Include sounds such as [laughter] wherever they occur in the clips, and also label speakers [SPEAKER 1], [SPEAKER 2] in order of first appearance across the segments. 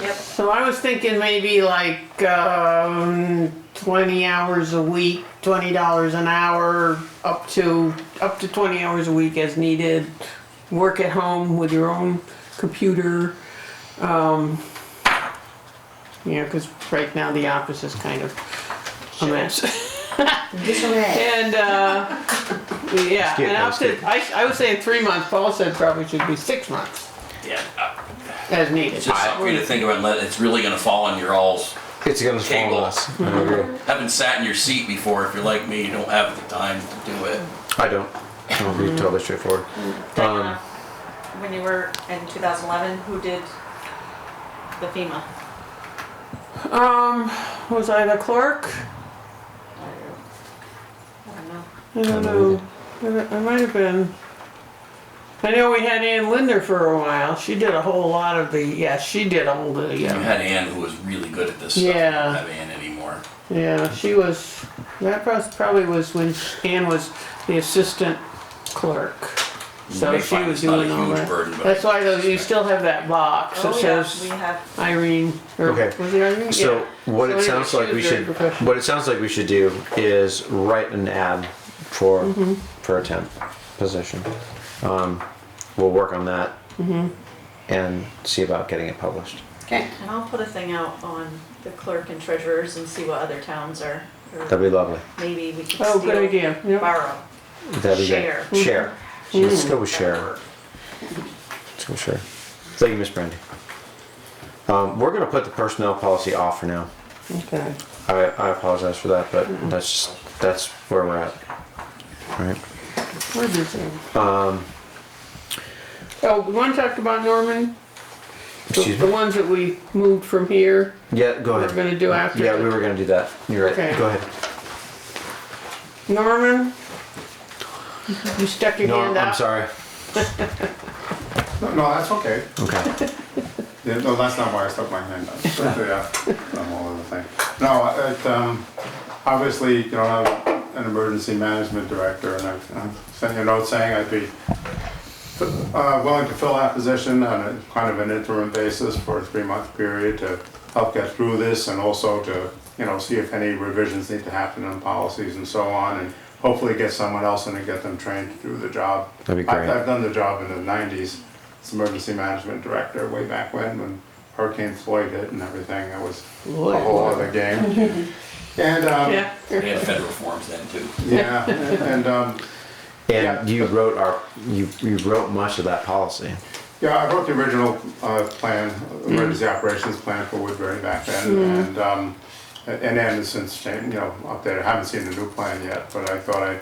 [SPEAKER 1] Yep.
[SPEAKER 2] So I was thinking maybe like um, 20 hours a week, $20 an hour, up to up to 20 hours a week as needed. Work at home with your own computer. Um, you know, because right now the office is kind of a mess.
[SPEAKER 1] Disarray.
[SPEAKER 2] and uh, yeah,
[SPEAKER 3] get
[SPEAKER 2] and up
[SPEAKER 3] those
[SPEAKER 2] to,
[SPEAKER 3] people.
[SPEAKER 2] I, I was saying three months. Paul said probably should be six months
[SPEAKER 4] Yeah, uh,
[SPEAKER 2] as needed.
[SPEAKER 4] it's just something for you to think about. and let- It's really going to fall on your all's.
[SPEAKER 3] It's gonna fall
[SPEAKER 4] Cable.
[SPEAKER 3] on us. I agree.
[SPEAKER 4] Haven't sat in your seat before. If you're like me, you don't have the time to do it.
[SPEAKER 3] I don't. I'll be totally straightforward.
[SPEAKER 5] Diana, uh, when you were in 2011, who did the FEMA?
[SPEAKER 2] Um, was I the clerk?
[SPEAKER 5] I don't know.
[SPEAKER 2] I don't know. I I might have been. I know we had Ann Linder for a while. She did a whole lot of the, yeah, she did all the,
[SPEAKER 4] You
[SPEAKER 2] yeah.
[SPEAKER 4] had Ann, who was really good at this stuff. You
[SPEAKER 2] Yeah.
[SPEAKER 4] don't have Ann anymore.
[SPEAKER 2] Yeah, she was, that pros- probably was when Ann was the assistant clerk. So
[SPEAKER 4] may
[SPEAKER 2] she
[SPEAKER 4] find
[SPEAKER 2] was
[SPEAKER 4] it's not a
[SPEAKER 2] doing all
[SPEAKER 4] huge burden,
[SPEAKER 2] that.
[SPEAKER 4] but-
[SPEAKER 2] That's why those, you still have that box that
[SPEAKER 5] Oh, yeah, we
[SPEAKER 2] says
[SPEAKER 5] have,
[SPEAKER 2] Irene, or was
[SPEAKER 3] Okay.
[SPEAKER 2] it Irene?
[SPEAKER 3] So
[SPEAKER 2] Yeah. So
[SPEAKER 3] what it
[SPEAKER 2] anyway,
[SPEAKER 3] sounds
[SPEAKER 2] she
[SPEAKER 3] like
[SPEAKER 2] was
[SPEAKER 3] we
[SPEAKER 2] very
[SPEAKER 3] should,
[SPEAKER 2] professional.
[SPEAKER 3] what it sounds like we should do is write an ad for
[SPEAKER 2] Mm-hmm.
[SPEAKER 3] for a temp position. Um, we'll work on that
[SPEAKER 2] Mm-hmm.
[SPEAKER 3] and see about getting it published.
[SPEAKER 1] Okay,
[SPEAKER 5] and I'll put a thing out on the clerk and treasurers and see what other towns are, or
[SPEAKER 3] That'd be lovely.
[SPEAKER 5] maybe we can
[SPEAKER 2] Oh, good
[SPEAKER 5] steal,
[SPEAKER 2] idea, yeah.
[SPEAKER 5] borrow.
[SPEAKER 3] That'd be
[SPEAKER 5] Share.
[SPEAKER 3] great. Share.
[SPEAKER 2] Mm-hmm.
[SPEAKER 3] Let's go with share. Let's go with share. Thank you, Miss Brandy. Um, we're gonna put the personnel policy off for now.
[SPEAKER 2] Okay.
[SPEAKER 3] I, I apologize for that, but
[SPEAKER 2] Mm-hmm.
[SPEAKER 3] that's just, that's where we're at. Right.
[SPEAKER 2] Where is this thing?
[SPEAKER 3] Um,
[SPEAKER 2] Oh, we want to talk about Norman? The-
[SPEAKER 3] Excuse
[SPEAKER 2] The
[SPEAKER 3] me.
[SPEAKER 2] ones that we moved from here,
[SPEAKER 3] Yeah, go
[SPEAKER 2] we're
[SPEAKER 3] ahead.
[SPEAKER 2] gonna do after.
[SPEAKER 3] Yeah, we were gonna do that. You're right.
[SPEAKER 2] Okay.
[SPEAKER 3] Go ahead.
[SPEAKER 2] Norman? You stuck your
[SPEAKER 3] No,
[SPEAKER 2] hand
[SPEAKER 3] I'm, I'm
[SPEAKER 2] out?
[SPEAKER 3] sorry.
[SPEAKER 6] No, no, that's okay.
[SPEAKER 3] Okay.
[SPEAKER 6] Yeah, No, that's not why I stuck my hand up. But, yeah, [laughs] I'm all over the thing. No, it, um, obviously, you know, I'm an emergency management director and I've, I've sent you a note saying I'd be uh, willing to fill that position on a kind of an interim basis for a three-month period to help get through this and also to, you know, see if any revisions need to happen on policies and so on and hopefully get someone else in and get them trained to do the job.
[SPEAKER 3] That'd be
[SPEAKER 6] I-
[SPEAKER 3] great.
[SPEAKER 6] I've done the job in the nineties, as emergency management director way back when, when Hurricane Floyd hit and everything, that was a
[SPEAKER 2] Lloyd.
[SPEAKER 6] whole other game. And, um,
[SPEAKER 2] Yeah.
[SPEAKER 4] They had federal forms then too.
[SPEAKER 6] yeah, and, um, Yeah.
[SPEAKER 3] [laughs] And you wrote our, you, you wrote much of that policy.
[SPEAKER 6] Yeah, I wrote the original uh, plan, emergency operations plan for Woodbury back then, and, um, and Anderson's, you know, updated, I haven't seen the new plan yet, but I thought I'd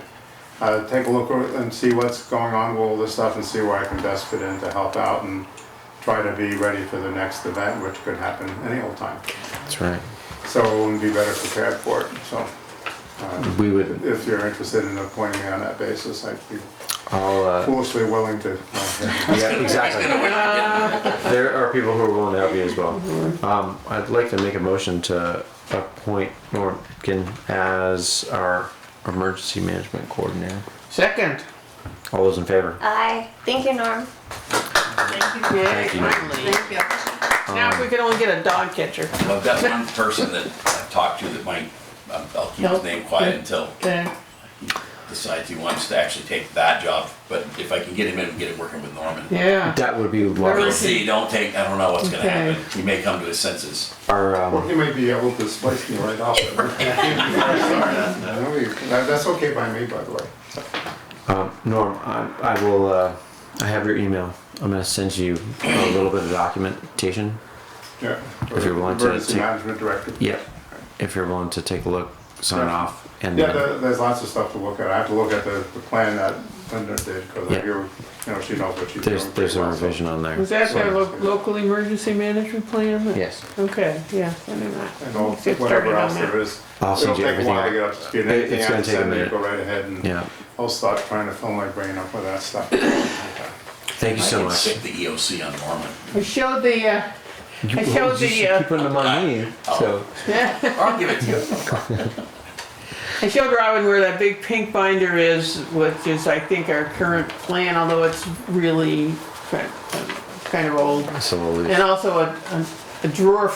[SPEAKER 6] uh, take a look o- and see what's going on with all this stuff and see where I can best fit in to help out and try to be ready for the next event, which could happen any old time.
[SPEAKER 3] That's right.
[SPEAKER 6] So we'd be better prepared for it, so uh,
[SPEAKER 3] We would,
[SPEAKER 6] if you're interested in appointing me on that basis, I'd be
[SPEAKER 3] all, uh,
[SPEAKER 6] foolishly willing to. uh,
[SPEAKER 3] yeah, exactly.
[SPEAKER 2] [laughs]
[SPEAKER 3] There are people who are willing to help you as well.
[SPEAKER 2] Mm-hmm.
[SPEAKER 3] Um, I'd like to make a motion to appoint Morgan as our emergency management coordinator.
[SPEAKER 2] Second.
[SPEAKER 3] All those in favor?
[SPEAKER 1] I Thank you, Norm.
[SPEAKER 5] Thank you.
[SPEAKER 2] Yay,
[SPEAKER 3] you.
[SPEAKER 2] finally.
[SPEAKER 5] Thank you.
[SPEAKER 2] Now if we could only get a dog catcher.
[SPEAKER 4] Well, I've got one person that I've talked to that might. I'll I'll keep his
[SPEAKER 2] Nope.
[SPEAKER 4] name quiet until
[SPEAKER 2] Okay.
[SPEAKER 4] he decides he wants to actually take that job. But if I can get him in and get him working with Norman,
[SPEAKER 2] Yeah.
[SPEAKER 3] That would be
[SPEAKER 4] we'll
[SPEAKER 3] lovely.
[SPEAKER 4] see. Don't take. I don't know what's going to
[SPEAKER 2] Okay.
[SPEAKER 4] happen. He may come to his senses.
[SPEAKER 3] Our,
[SPEAKER 6] Well,
[SPEAKER 3] um,
[SPEAKER 6] he might be able to splice me right off. of [laughs] it.
[SPEAKER 2] [laughs]
[SPEAKER 6] No, you- that- That's okay by me, by the way.
[SPEAKER 3] um, Norm, I, I will, uh, I have your email. I'm gonna send you a little bit of documentation
[SPEAKER 6] Yeah.
[SPEAKER 3] If you're willing to
[SPEAKER 6] Emergency
[SPEAKER 3] take-
[SPEAKER 6] management director.
[SPEAKER 3] Yep. If you're willing to take a look, sign off, and
[SPEAKER 6] Yeah,
[SPEAKER 3] then-
[SPEAKER 6] there- there's lots of stuff to look at. I have to look at the, the plan that Linda did, because
[SPEAKER 3] Yeah.
[SPEAKER 6] I hear, you know, she knows what she's doing.
[SPEAKER 3] there's there's
[SPEAKER 6] pretty
[SPEAKER 3] a
[SPEAKER 6] well, so-
[SPEAKER 3] revision on there.
[SPEAKER 2] Was that
[SPEAKER 3] So-
[SPEAKER 2] our lo- local emergency management plan?
[SPEAKER 3] Yes.
[SPEAKER 2] Okay, yeah, I knew that.
[SPEAKER 6] And all,
[SPEAKER 2] Let's get started
[SPEAKER 6] whatever
[SPEAKER 2] on
[SPEAKER 6] else
[SPEAKER 2] that.
[SPEAKER 6] there is.
[SPEAKER 3] I'll send you
[SPEAKER 6] It'll take a while
[SPEAKER 3] everything.
[SPEAKER 6] to get up to speed.
[SPEAKER 3] It-
[SPEAKER 6] Anything
[SPEAKER 3] it's
[SPEAKER 6] I
[SPEAKER 3] gonna
[SPEAKER 6] can
[SPEAKER 3] take a
[SPEAKER 6] send you,
[SPEAKER 3] minute.
[SPEAKER 6] go right ahead and
[SPEAKER 3] Yeah.
[SPEAKER 6] I'll start trying to fill my brain up with
[SPEAKER 3] [coughs]
[SPEAKER 6] that stuff. Okay.
[SPEAKER 3] Thank you
[SPEAKER 4] I
[SPEAKER 3] so
[SPEAKER 4] can
[SPEAKER 3] much.
[SPEAKER 4] stick the EOC on Norman.
[SPEAKER 2] I showed the, uh, I showed the, uh,
[SPEAKER 3] putting them on me. So
[SPEAKER 2] yeah,
[SPEAKER 4] Or I'll give it to you.
[SPEAKER 2] I showed Robin where that big pink binder is, which is, I think, our current plan, although it's really kind kind of old.
[SPEAKER 3] it's a little loose.
[SPEAKER 2] And also a, a a drawer